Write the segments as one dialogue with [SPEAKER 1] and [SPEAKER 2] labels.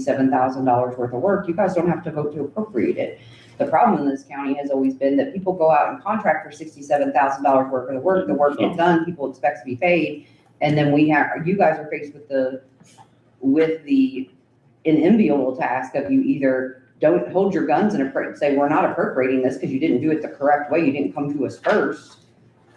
[SPEAKER 1] seven thousand dollars worth of work, you guys don't have to vote to appropriate it. The problem in this county has always been that people go out and contract for sixty-seven thousand dollars worth of work, the work gets done, people expect to be paid. And then we have, you guys are faced with the, with the enviable task of you either don't hold your guns and appro- say, we're not appropriating this because you didn't do it the correct way, you didn't come to us first.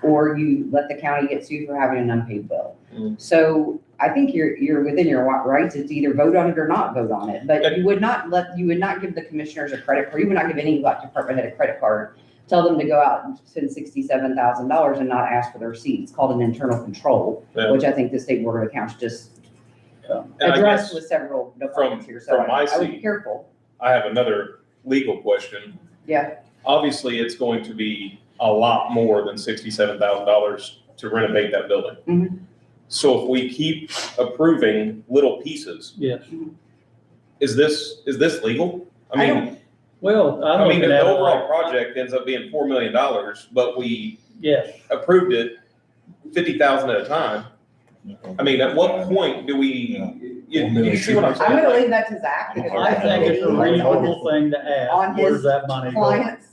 [SPEAKER 1] Or you let the county get sued for having an unpaid bill.
[SPEAKER 2] Mm.
[SPEAKER 1] So I think you're, you're within your wa- rights to either vote on it or not vote on it, but you would not let, you would not give the commissioners a credit card, you would not give any like department head a credit card. Tell them to go out and spend sixty-seven thousand dollars and not ask for their seat. It's called an internal control,
[SPEAKER 2] Yeah.
[SPEAKER 1] which I think the state board of accounts just
[SPEAKER 2] And I
[SPEAKER 1] addressed
[SPEAKER 2] guess
[SPEAKER 1] with several departments here, so
[SPEAKER 2] from my
[SPEAKER 1] I I would be
[SPEAKER 2] seat-
[SPEAKER 1] careful.
[SPEAKER 2] I have another legal question.
[SPEAKER 1] Yeah.
[SPEAKER 2] Obviously, it's going to be a lot more than sixty-seven thousand dollars to renovate that
[SPEAKER 1] Mhm.
[SPEAKER 2] building. So if we keep approving little pieces,
[SPEAKER 3] Yes,
[SPEAKER 2] is this, is this legal? I
[SPEAKER 1] I
[SPEAKER 2] mean,
[SPEAKER 3] well,
[SPEAKER 2] I
[SPEAKER 3] I'm
[SPEAKER 2] mean,
[SPEAKER 3] looking
[SPEAKER 2] the
[SPEAKER 3] at it
[SPEAKER 2] overall
[SPEAKER 3] like,
[SPEAKER 2] project ends up being four million dollars, but we
[SPEAKER 3] yes,
[SPEAKER 2] approved it fifty thousand at a time. I mean, at what point do we, you, you see what I'm saying?
[SPEAKER 1] I'm gonna leave that to Zach. because
[SPEAKER 3] I think it's a reasonable thing to
[SPEAKER 1] On
[SPEAKER 3] ask, where's
[SPEAKER 1] his
[SPEAKER 3] that money going?
[SPEAKER 1] Clients,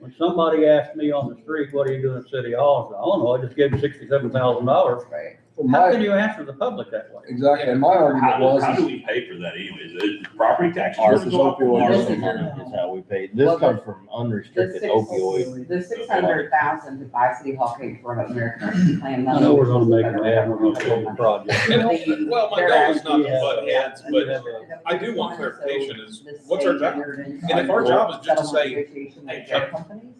[SPEAKER 3] When somebody asks me on the street, what are you doing at City Hall, I say, I don't know, I just gave you sixty-seven thousand dollars.
[SPEAKER 1] right,
[SPEAKER 4] Well,
[SPEAKER 3] How
[SPEAKER 4] my,
[SPEAKER 3] can you answer the public that way?
[SPEAKER 4] exactly, and my argument
[SPEAKER 5] How do,
[SPEAKER 4] was,
[SPEAKER 5] how do
[SPEAKER 4] is-
[SPEAKER 5] we pay for that anyways? Is property taxes?
[SPEAKER 6] Ours
[SPEAKER 5] just
[SPEAKER 6] is
[SPEAKER 5] go up?
[SPEAKER 6] opioid.
[SPEAKER 5] Ours
[SPEAKER 1] This
[SPEAKER 5] is-
[SPEAKER 1] is-
[SPEAKER 6] Is how we paid.
[SPEAKER 1] Well,
[SPEAKER 6] This
[SPEAKER 1] the-
[SPEAKER 6] comes from
[SPEAKER 1] the
[SPEAKER 6] unrestricted
[SPEAKER 1] six,
[SPEAKER 6] opioid.
[SPEAKER 1] the six hundred thousand to buy City Hall paid for by American Rescue Plan.
[SPEAKER 3] I know we're gonna make an admirable project.
[SPEAKER 2] And hopefully- well, my goal is not to butt heads,
[SPEAKER 3] And you
[SPEAKER 2] but
[SPEAKER 3] have a-
[SPEAKER 2] I do want clarification is, what's our job? And if
[SPEAKER 1] our
[SPEAKER 2] our job is just to say, hey, Chuck,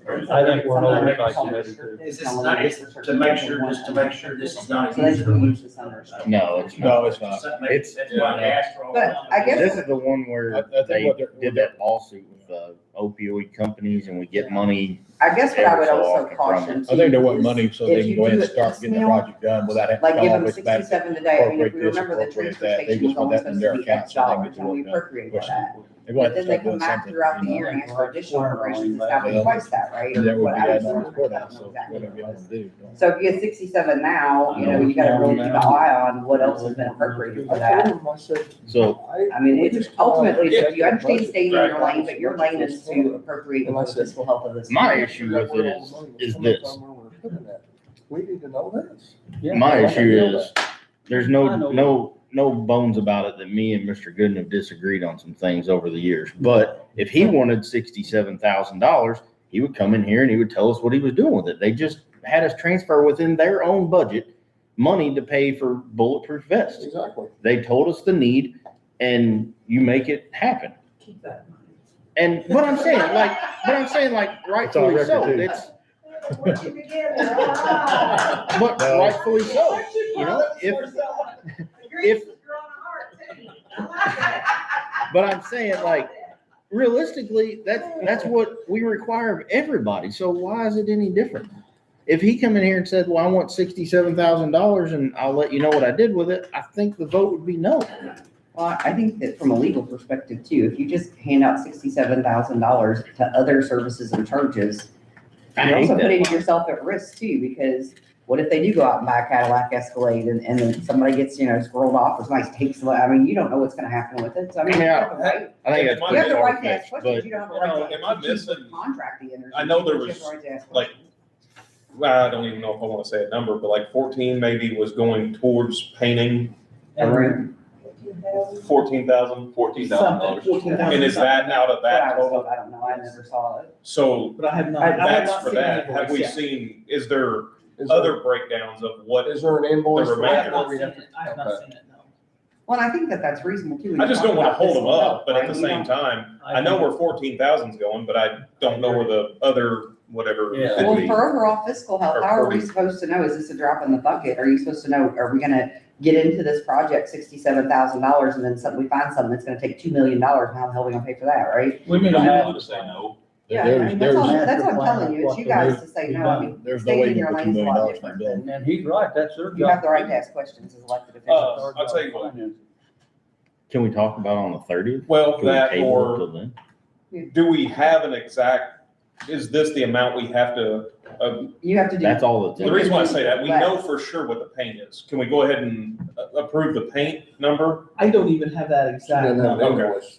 [SPEAKER 3] I think we're an oversight
[SPEAKER 7] Is this not, is to make sure, just to make sure this is not
[SPEAKER 1] So
[SPEAKER 7] a user.
[SPEAKER 1] that's what we
[SPEAKER 7] group.
[SPEAKER 1] should understand.
[SPEAKER 6] No, it's not.
[SPEAKER 5] No,
[SPEAKER 6] it's
[SPEAKER 7] That's what
[SPEAKER 6] It's-
[SPEAKER 7] I asked for all
[SPEAKER 1] But
[SPEAKER 7] along.
[SPEAKER 1] I guess-
[SPEAKER 6] This is the one
[SPEAKER 4] I- I
[SPEAKER 6] where
[SPEAKER 4] think
[SPEAKER 6] they
[SPEAKER 4] what they're-
[SPEAKER 6] did that lawsuit with the opioid companies and we get money.
[SPEAKER 1] I guess what I would
[SPEAKER 6] Every
[SPEAKER 1] also
[SPEAKER 6] so often from
[SPEAKER 1] caution
[SPEAKER 4] I think they want
[SPEAKER 1] too
[SPEAKER 4] money so
[SPEAKER 1] If
[SPEAKER 4] they can
[SPEAKER 1] you
[SPEAKER 4] go ahead
[SPEAKER 1] do
[SPEAKER 4] and
[SPEAKER 1] it
[SPEAKER 4] start
[SPEAKER 1] piecemeal,
[SPEAKER 4] getting the project done without having
[SPEAKER 1] Like
[SPEAKER 4] to
[SPEAKER 1] give
[SPEAKER 4] follow
[SPEAKER 1] them
[SPEAKER 4] us back.
[SPEAKER 1] sixty-seven today, I mean, if we
[SPEAKER 4] appropriate this,
[SPEAKER 1] remember the
[SPEAKER 4] appropriate
[SPEAKER 1] transfer
[SPEAKER 4] that, they
[SPEAKER 1] station was
[SPEAKER 4] just want
[SPEAKER 1] only
[SPEAKER 4] that in
[SPEAKER 1] supposed
[SPEAKER 4] their
[SPEAKER 1] to be X
[SPEAKER 4] accounts and they
[SPEAKER 1] dollars,
[SPEAKER 4] get
[SPEAKER 1] and
[SPEAKER 4] what
[SPEAKER 1] we
[SPEAKER 4] the-
[SPEAKER 1] appropriated
[SPEAKER 4] what's-
[SPEAKER 1] that.
[SPEAKER 4] They
[SPEAKER 1] But
[SPEAKER 4] want to
[SPEAKER 1] then they
[SPEAKER 4] start
[SPEAKER 1] come
[SPEAKER 4] doing
[SPEAKER 1] back
[SPEAKER 4] something.
[SPEAKER 1] throughout the
[SPEAKER 4] you know.
[SPEAKER 1] year and ask for additional appropriations, it's happened
[SPEAKER 4] Well,
[SPEAKER 1] twice that, right?
[SPEAKER 4] And That would be
[SPEAKER 1] Whatever.
[SPEAKER 4] added on the courthouse, so
[SPEAKER 1] Exactly
[SPEAKER 4] whatever you
[SPEAKER 1] what it
[SPEAKER 4] want
[SPEAKER 1] was.
[SPEAKER 4] to do. don't-
[SPEAKER 1] So if you get sixty-seven now, you know, you gotta really keep an eye on what else has been appropriated for that.
[SPEAKER 6] So
[SPEAKER 1] I mean, it's ultimately, so you understand staying in your
[SPEAKER 4] Right.
[SPEAKER 1] lane, but your lane is to appropriate for the fiscal health of this.
[SPEAKER 6] my
[SPEAKER 1] county.
[SPEAKER 6] issue with it is, is this.
[SPEAKER 4] We need to know this.
[SPEAKER 3] Yeah.
[SPEAKER 6] my issue is, there's
[SPEAKER 3] I
[SPEAKER 6] no,
[SPEAKER 3] know.
[SPEAKER 6] no, no bones about it that me and Mr. Gooden have disagreed on some things over the years. But if he wanted sixty-seven thousand dollars, he would come in here and he would tell us what he was doing with it. They just had us transfer within their own budget money to pay for bulletproof vests.
[SPEAKER 4] Exactly.
[SPEAKER 6] They told us the need, and you make it happen.
[SPEAKER 7] Keep that money.
[SPEAKER 6] And what I'm saying, like, what I'm saying, like, rightfully
[SPEAKER 4] record,
[SPEAKER 6] so.
[SPEAKER 4] too.
[SPEAKER 6] It's
[SPEAKER 7] Ah.
[SPEAKER 6] but
[SPEAKER 4] No.
[SPEAKER 6] rightfully so. You know, if if but I'm saying like realistically, that's that's what we require of everybody. So why is it any different? If he come in here and said, "Well, I want sixty-seven thousand dollars, and I'll let you know what I did with it," I think the vote would be no.
[SPEAKER 1] Well, I think that from a legal perspective too, if you just hand out sixty-seven thousand dollars to other services and charges,
[SPEAKER 6] I
[SPEAKER 1] you're
[SPEAKER 6] hate
[SPEAKER 1] also putting
[SPEAKER 6] that.
[SPEAKER 1] yourself at risk too, because what if they do go out and buy a Cadillac Escalade and, and then somebody gets, you know, squirreled off, or somebody takes, the- I mean, you don't know what's gonna happen with it, so I mean. you have a right-
[SPEAKER 6] I think that's
[SPEAKER 1] You
[SPEAKER 2] Yeah,
[SPEAKER 1] have
[SPEAKER 6] pretty
[SPEAKER 1] the right to ask
[SPEAKER 6] far-fetched,
[SPEAKER 1] questions,
[SPEAKER 6] but
[SPEAKER 1] you don't have a
[SPEAKER 2] you
[SPEAKER 1] right to.
[SPEAKER 2] know, am I
[SPEAKER 1] ask questions
[SPEAKER 2] missing-
[SPEAKER 1] with Contract the energy.
[SPEAKER 2] I know there
[SPEAKER 1] You have
[SPEAKER 2] was,
[SPEAKER 1] the right to ask
[SPEAKER 2] like,
[SPEAKER 1] questions.
[SPEAKER 2] well, I don't even know if I want to say a number, but like fourteen maybe was going towards painting
[SPEAKER 1] A room.
[SPEAKER 2] fourteen thousand, fourteen thousand dollars. And is that out of
[SPEAKER 1] But
[SPEAKER 2] that
[SPEAKER 1] I was told,
[SPEAKER 2] total?
[SPEAKER 1] I don't know, I never saw it.
[SPEAKER 2] So
[SPEAKER 3] But I have
[SPEAKER 1] I- I
[SPEAKER 2] that's for that. Have we seen, is there
[SPEAKER 4] Is there-
[SPEAKER 2] other breakdowns of what
[SPEAKER 4] Is
[SPEAKER 2] is?
[SPEAKER 4] there an invoice?
[SPEAKER 2] The
[SPEAKER 4] for
[SPEAKER 7] I
[SPEAKER 4] that
[SPEAKER 7] have
[SPEAKER 2] remainder.
[SPEAKER 4] where
[SPEAKER 7] not
[SPEAKER 4] we
[SPEAKER 7] seen
[SPEAKER 4] have
[SPEAKER 7] it,
[SPEAKER 4] to-
[SPEAKER 7] I have not seen it, no.
[SPEAKER 1] Well, and I think that that's reasonable too. when
[SPEAKER 2] I
[SPEAKER 1] you
[SPEAKER 2] just
[SPEAKER 1] talk
[SPEAKER 2] don't want to
[SPEAKER 1] about
[SPEAKER 2] hold
[SPEAKER 1] this
[SPEAKER 2] them up,
[SPEAKER 1] and
[SPEAKER 2] but at
[SPEAKER 1] that,
[SPEAKER 2] the
[SPEAKER 1] right?
[SPEAKER 2] same time, I know where fourteen thousand's going, but I don't know where the other whatever
[SPEAKER 3] Yeah.
[SPEAKER 2] could
[SPEAKER 1] Well,
[SPEAKER 2] be.
[SPEAKER 1] for overall fiscal health,
[SPEAKER 2] Or
[SPEAKER 1] how are we
[SPEAKER 2] 40.
[SPEAKER 1] supposed to know? Is this a drop in the bucket? Are you supposed to know, are we gonna get into this project sixty-seven thousand dollars and then suddenly we find something that's gonna take two million dollars? How the hell are we gonna pay for that, right?
[SPEAKER 3] We need
[SPEAKER 5] You
[SPEAKER 3] to
[SPEAKER 5] don't
[SPEAKER 3] have.
[SPEAKER 5] want to say no.
[SPEAKER 1] Yeah, I
[SPEAKER 4] There's-
[SPEAKER 1] mean, that's all,
[SPEAKER 4] there's-
[SPEAKER 1] that's what I'm telling you. It's you guys to say, no, I mean,
[SPEAKER 4] There's no
[SPEAKER 1] staying
[SPEAKER 4] way
[SPEAKER 1] in
[SPEAKER 4] you
[SPEAKER 1] your
[SPEAKER 4] can put two
[SPEAKER 1] lane's a
[SPEAKER 4] million
[SPEAKER 1] lot
[SPEAKER 4] dollars in
[SPEAKER 1] different
[SPEAKER 4] that building.
[SPEAKER 3] And he's right, that's their job.
[SPEAKER 1] you have the right to ask questions as elected officials.
[SPEAKER 2] Uh, I'll tell you what.
[SPEAKER 6] can we talk about it on the thirtieth?
[SPEAKER 2] Well,
[SPEAKER 6] Can we
[SPEAKER 2] that
[SPEAKER 6] table it
[SPEAKER 2] or
[SPEAKER 6] till then?
[SPEAKER 2] do we have an exact is this the amount we have to, uh,
[SPEAKER 1] You have to do.
[SPEAKER 6] That's all it's.
[SPEAKER 2] the reason why I say that, we know for sure what the paint is. Can we go ahead and uh, approve the paint number?
[SPEAKER 8] I don't even have that
[SPEAKER 4] She
[SPEAKER 8] exact.
[SPEAKER 4] doesn't have an
[SPEAKER 2] Okay.
[SPEAKER 4] invoice.